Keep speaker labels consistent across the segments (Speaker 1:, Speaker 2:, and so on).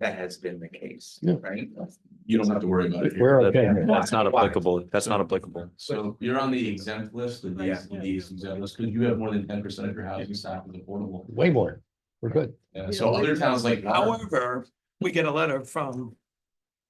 Speaker 1: that has been the case,
Speaker 2: Yeah.
Speaker 1: right?
Speaker 3: You don't have to worry about it. here.
Speaker 2: We're okay.
Speaker 4: That's not applicable. That's not applicable.
Speaker 3: So you're on the exempt list, the these, the these exempt list, because you have more than ten percent of your housing stock is affordable.
Speaker 2: Way more. We're good.
Speaker 3: And so other towns like.
Speaker 5: Uh,
Speaker 6: However, we get a letter from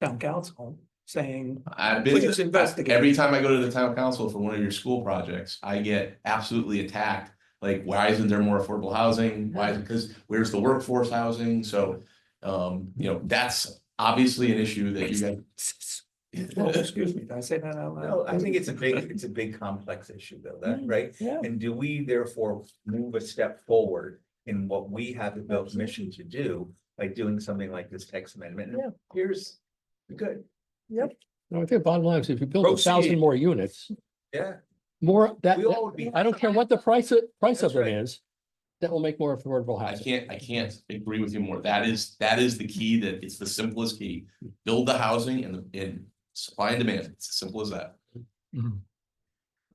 Speaker 6: town council saying,
Speaker 3: I've been.
Speaker 6: please investigate.
Speaker 3: Every time I go to the town council for one of your school projects, I get absolutely attacked. Like, why isn't there more affordable housing? Why, because where's the workforce housing? So, um, you know, that's obviously an issue that you guys.
Speaker 6: Oh, excuse me, did I say that out
Speaker 1: No,
Speaker 6: loud?
Speaker 1: I think it's a big, it's a big complex issue though, that, right?
Speaker 6: Yeah.
Speaker 1: And do we therefore move a step forward in what we have the Bill's mission to do by doing something like this text amendment? And
Speaker 6: Yeah.
Speaker 1: Here's, good,
Speaker 2: No, I think the bottom line is if you build a thousand
Speaker 6: Proceed.
Speaker 2: more units,
Speaker 1: yeah,
Speaker 2: more that,
Speaker 1: we all would be,
Speaker 2: I don't care what the price of, price
Speaker 1: That's
Speaker 2: of it
Speaker 1: right.
Speaker 2: is, that will make more affordable
Speaker 3: I
Speaker 2: housing.
Speaker 3: can't, I can't agree with you more. That is, that is the key, that it's the simplest key. Build the housing and, the- and supply and demand. It's as simple as that.
Speaker 5: Mm.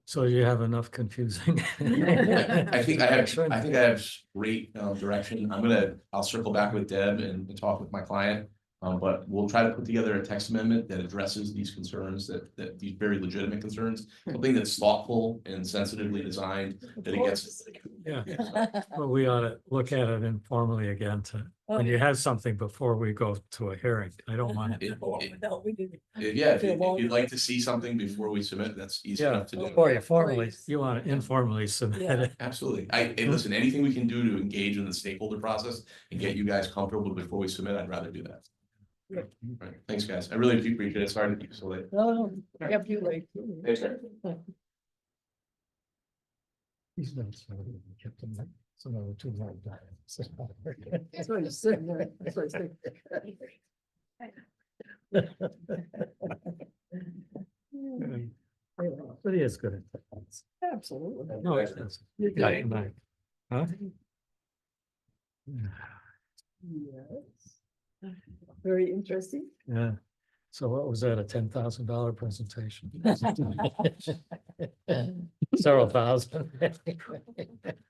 Speaker 5: So you have enough confusing.
Speaker 3: I
Speaker 5: I
Speaker 3: think I have, I think I have great um direction. I'm gonna, I'll circle back with Deb and and talk with my client. Um, but we'll try to put together a text amendment that addresses these concerns that that these very legitimate concerns. Something that's thoughtful and sensitively designed that it gets.
Speaker 5: Yeah, but we ought to look at it informally again to, when you have something before we go to a hearing. I don't want
Speaker 3: It-
Speaker 5: it.
Speaker 3: it-
Speaker 6: No, we didn't.
Speaker 3: Yeah, if you- if you'd like to see something before we submit, that's easy
Speaker 5: Yeah,
Speaker 3: enough to do.
Speaker 5: before you formally,
Speaker 7: Please.
Speaker 5: you want to informally submit
Speaker 7: Yeah.
Speaker 5: it.
Speaker 3: Absolutely. I, and listen, anything we can do to engage in the stakeholder process and get you guys comfortable before we submit, I'd rather do that.
Speaker 7: Yeah.
Speaker 3: Right, thanks, guys. I really do appreciate it. Sorry to keep you so late.
Speaker 7: No, no, kept you late.
Speaker 5: He's not sorry, he kept them like, so no, too long.
Speaker 7: That's what I said, right? That's what I said.
Speaker 5: But he is good. at that.
Speaker 7: Absolutely.
Speaker 5: No, it's not.
Speaker 7: You're
Speaker 5: Yeah,
Speaker 7: good.
Speaker 5: no. Huh?
Speaker 7: Yes. Very interesting.
Speaker 5: Yeah. So what was that, a ten thousand dollar presentation? Several thousand.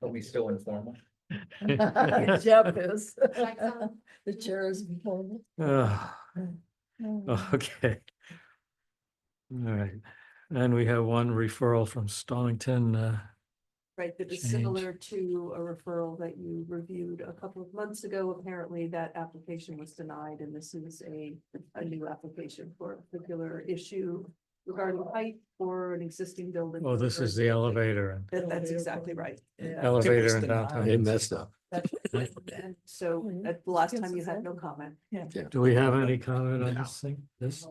Speaker 1: are we still informal?
Speaker 7: Jeff is.
Speaker 8: Like some-
Speaker 7: The chair is before
Speaker 5: Ah,
Speaker 8: Mm.
Speaker 7: me.
Speaker 5: Okay. All right, and we have one referral from Stonington, uh,
Speaker 8: Right, that is
Speaker 5: Change.
Speaker 8: similar to a referral that you reviewed a couple of months ago. Apparently, that application was denied, and this is a, a new application for a particular issue regarding height for an existing building.
Speaker 5: oh, this is the elevator and
Speaker 8: That- that's exactly right.
Speaker 7: Yeah.
Speaker 5: elevator in
Speaker 6: denied.
Speaker 2: They
Speaker 5: downtown.
Speaker 2: messed up.
Speaker 8: And So
Speaker 7: Mm.
Speaker 8: at the last time you had no comment.
Speaker 5: Do we have any comment on this thing? This?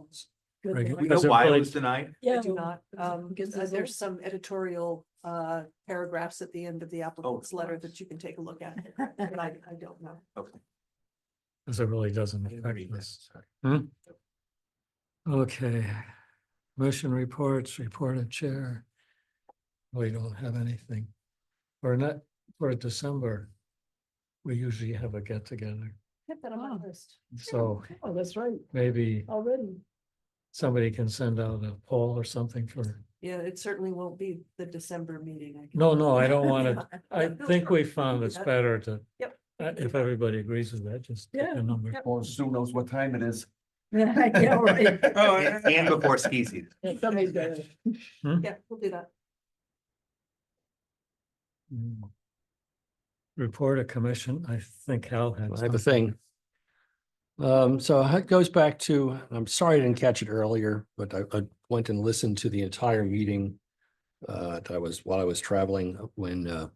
Speaker 7: Good
Speaker 5: Regu-
Speaker 7: one.
Speaker 5: We know Is it why it really- was
Speaker 1: denied?
Speaker 8: I
Speaker 7: Yeah,
Speaker 8: do not, um,
Speaker 7: because
Speaker 8: uh,
Speaker 7: it's
Speaker 8: there's
Speaker 7: old.
Speaker 8: some editorial, uh, paragraphs at the end
Speaker 5: Oh,
Speaker 8: of the applicant's letter that you can take a look at. But I, I don't know.
Speaker 5: Cause it really doesn't affect us. Hmm? Okay, motion reports, report of chair. We don't have anything. Or not, for December. We usually have a get together,
Speaker 7: Hit that on my
Speaker 8: Oh.
Speaker 7: list.
Speaker 5: so
Speaker 7: Oh, that's right,
Speaker 5: maybe
Speaker 7: already.
Speaker 5: somebody can send out a poll or something for,
Speaker 8: Yeah, it certainly won't be the December meeting. I can-
Speaker 5: no, no, I don't want to. I think we found it's better to.
Speaker 8: Yep.
Speaker 5: uh, If everybody agrees with that, just pick
Speaker 7: Yeah,
Speaker 5: a number.
Speaker 7: yep.
Speaker 9: Or Sue knows what time it is.
Speaker 7: Yeah, right.
Speaker 1: And before ski season.
Speaker 7: Somebody's got it.
Speaker 8: Yeah, we'll do that.
Speaker 5: Mm. Report a commission, I think Al had.
Speaker 2: I have a
Speaker 5: something.
Speaker 2: thing. Um, so it goes back to, I'm sorry I didn't catch it earlier, but I, I went and listened to the entire meeting. Uh, that I was, while I was traveling, when, uh,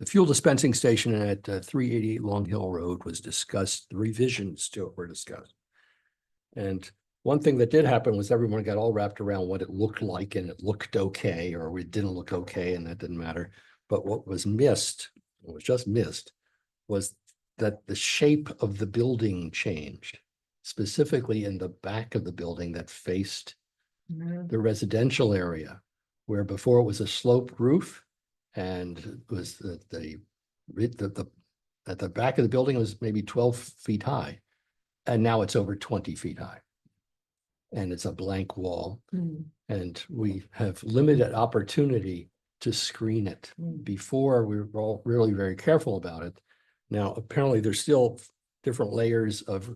Speaker 2: the fuel dispensing station at uh, three eighty-eight Long Hill Road was discussed, the revisions to it were discussed. And one thing that did happen was everyone got all wrapped around what it looked like and it looked okay, or it didn't look okay, and that didn't matter. But what was missed, what was just missed, was that the shape of the building changed, specifically in the back of the building that faced the residential area, where before it was a sloped roof and it was the, the, it- the, the, at the back of the building was maybe twelve feet high, and now it's over twenty feet high. And it's a blank wall, and we have limited opportunity to screen it. Before, we were all really very careful about it. Now, apparently, there's still different layers of